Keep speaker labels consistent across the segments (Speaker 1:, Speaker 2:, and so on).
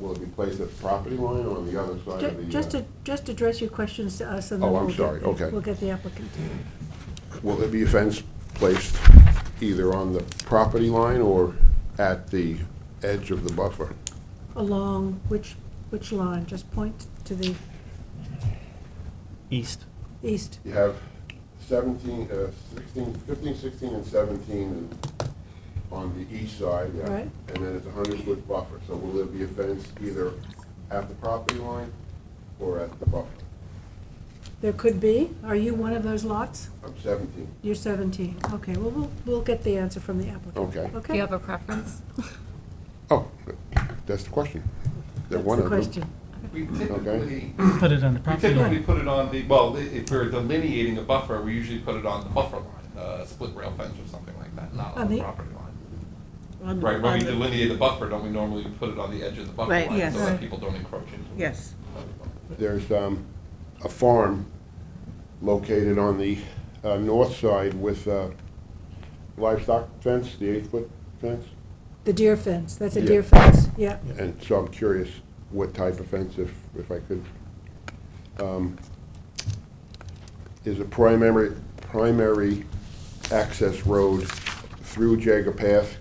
Speaker 1: will it be placed at the property line or on the other side of the?
Speaker 2: Ju- Just
Speaker 1: uh,
Speaker 2: to, just address your questions to us and then
Speaker 1: Oh,
Speaker 2: we'll.
Speaker 1: I'm
Speaker 2: get-
Speaker 1: sorry, okay.
Speaker 2: We'll get the applicant.
Speaker 1: Will there be a fence placed either on the property line or at the edge of the buffer?
Speaker 2: Along which, which line? Just point to the
Speaker 3: East.
Speaker 2: east.
Speaker 1: You have 17, uh, 16, 15, 16, and 17 is on the east side. yeah.
Speaker 2: Right.
Speaker 1: And then it's a 100-foot buffer. So will there be a fence either at the property line or at the buffer?
Speaker 2: There could be. Are you one of those lots?
Speaker 1: I'm 17.
Speaker 2: You're 17. Okay, well, we'll, we'll get the answer from the applicant.
Speaker 1: Okay.
Speaker 4: Do you
Speaker 2: Okay?
Speaker 4: have a preference?
Speaker 1: Oh, that's the question. They're
Speaker 2: That's
Speaker 1: one
Speaker 2: the
Speaker 1: of them.
Speaker 2: question.
Speaker 5: We typically,
Speaker 3: Put it on the
Speaker 5: we
Speaker 3: property
Speaker 5: typically
Speaker 3: line.
Speaker 5: put it on the, well, i- if we're delineating a buffer, we usually put it on the buffer line, uh, split rail fence or something like that, not
Speaker 2: On
Speaker 5: on the
Speaker 2: the-
Speaker 5: property line.
Speaker 6: On the-
Speaker 5: Right, when
Speaker 6: on
Speaker 5: we
Speaker 6: the-
Speaker 5: delineate the buffer, don't we normally put it on the edge of the buffer
Speaker 6: Right,
Speaker 5: line
Speaker 6: yes.
Speaker 5: so that
Speaker 2: Right.
Speaker 5: people don't encroach into it?
Speaker 6: Yes,
Speaker 1: There's um, a farm located on the uh, north side with uh, livestock fence, the eight-foot fence.
Speaker 2: The deer fence, that's a
Speaker 1: Yeah.
Speaker 2: deer fence, yeah.
Speaker 1: And so I'm curious what type of fence, if, if I could. Um, Is a primary, primary access road through Jager Path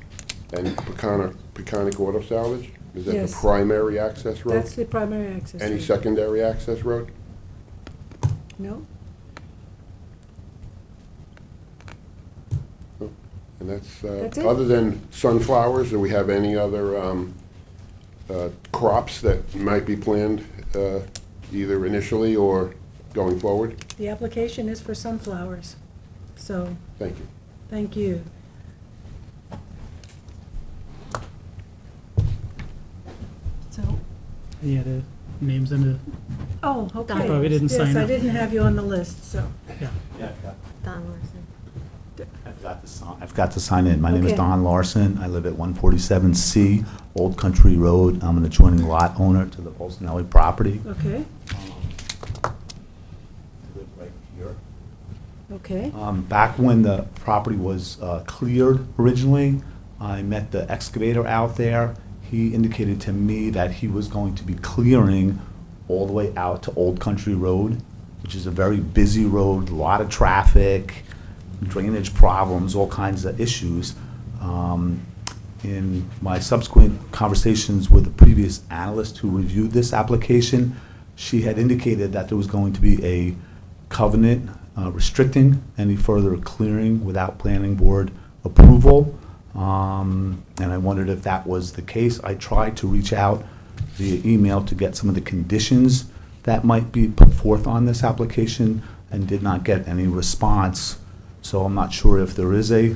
Speaker 1: and Peconic, Peconic Auto Salvage? Is that the
Speaker 2: Yes.
Speaker 1: primary access road?
Speaker 2: That's the primary access.
Speaker 1: Any
Speaker 2: road.
Speaker 1: secondary access road?
Speaker 2: No?
Speaker 1: And that's, uh,
Speaker 2: That's it.
Speaker 1: other than sunflowers, do we have any other um, uh, crops that might be planned uh, either initially or going forward?
Speaker 2: The application is for sunflowers. So,
Speaker 1: Thank you.
Speaker 2: thank you. So,
Speaker 3: Yeah, the names and
Speaker 2: Oh, okay.
Speaker 4: You probably
Speaker 3: didn't sign
Speaker 2: Yes, I
Speaker 3: up.
Speaker 2: didn't have you on the list, so.
Speaker 3: the, yeah.
Speaker 7: Yeah, I've got-
Speaker 4: Don Larson.
Speaker 7: I've got to sign, I've got to sign in. My name is
Speaker 2: Okay.
Speaker 7: Don Larson. I live at 147C Old Country Road. I'm an adjoining lot owner to the Bolsonelli property.
Speaker 2: Okay,
Speaker 7: Um, I live right here.
Speaker 2: okay,
Speaker 7: Um, Back when the property was uh, cleared originally, I met the excavator out there. He indicated to me that he was going to be clearing all the way out to Old Country Road, which is a very busy road, a lot of traffic, drainage problems, all kinds of issues. Um, In my subsequent conversations with the previous analyst who reviewed this application, she had indicated that there was going to be a covenant uh, restricting any further clearing without planning board approval. Um, And I wondered if that was the case. I tried to reach out via email to get some of the conditions that might be put forth on this application and did not get any response. So I'm not sure if there is
Speaker 2: okay.
Speaker 7: a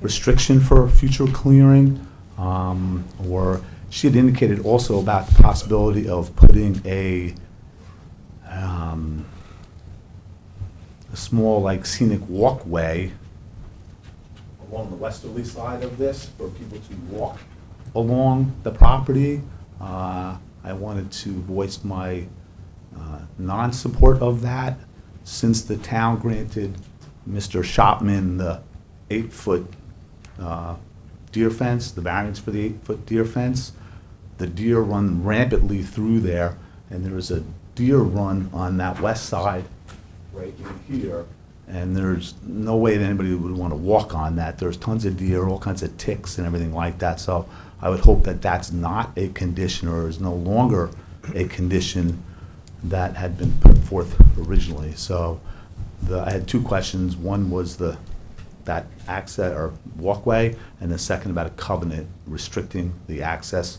Speaker 7: restriction for future clearing, um, or she had indicated also about the possibility of putting a, um, a small like scenic walkway along the westerly side of this for people to walk along the property. Uh, I wanted to voice my uh, non-support of that since the town granted Mr. Shopman the eight-foot uh, deer fence, the variance for the eight-foot deer fence. The deer run rampantly through there, and there is a deer run on that west side right in here, and there's no way that anybody would want to walk on that. There's tons of deer, all kinds of ticks and everything like that, so I would hope that that's not a condition or is no longer a condition that had been put forth originally. So the, I had two questions. One was the, that access or walkway, and the second about a covenant restricting the access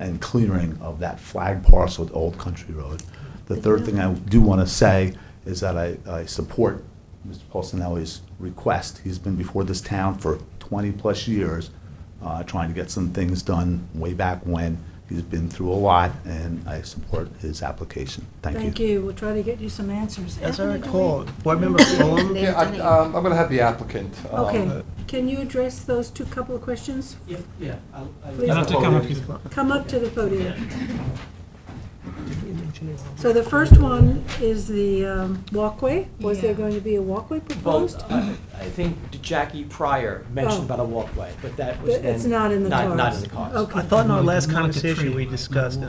Speaker 7: and clearing of that flag parcel at Old Country Road. The third thing I do want to say is that I, I support Mr. Paulsonelli's request. He's been before this town for 20-plus years, uh, trying to get some things done way back when. He's been through a lot, and I support his application. Thank you.
Speaker 2: Thank you, we'll try to get you some answers.
Speaker 8: As I
Speaker 2: Anthony, do we-
Speaker 8: recall, Board Member Fulham,
Speaker 4: They've
Speaker 5: Yeah, I,
Speaker 4: done it.
Speaker 5: um, I'm gonna have the applicant. um,
Speaker 8: uh,
Speaker 2: Okay, can you address those two couple of questions?
Speaker 8: yeah, yeah, I'll, I'll.
Speaker 2: Please.
Speaker 3: You'll have to come up here.
Speaker 2: Come up to the podium. So the first one is the um, walkway. Was there
Speaker 4: Yeah.
Speaker 2: going to be a walkway
Speaker 8: Well,
Speaker 2: proposed?
Speaker 8: I I think Jackie Pryor mentioned
Speaker 2: Oh.
Speaker 8: about a walkway, but that was
Speaker 2: But
Speaker 8: then.
Speaker 2: It's not in the
Speaker 8: Not,
Speaker 2: cards?
Speaker 8: not in the cards.
Speaker 2: Okay.
Speaker 8: Okay.
Speaker 9: I thought in our last
Speaker 3: Like a
Speaker 9: conversation,
Speaker 3: tree.
Speaker 9: we discussed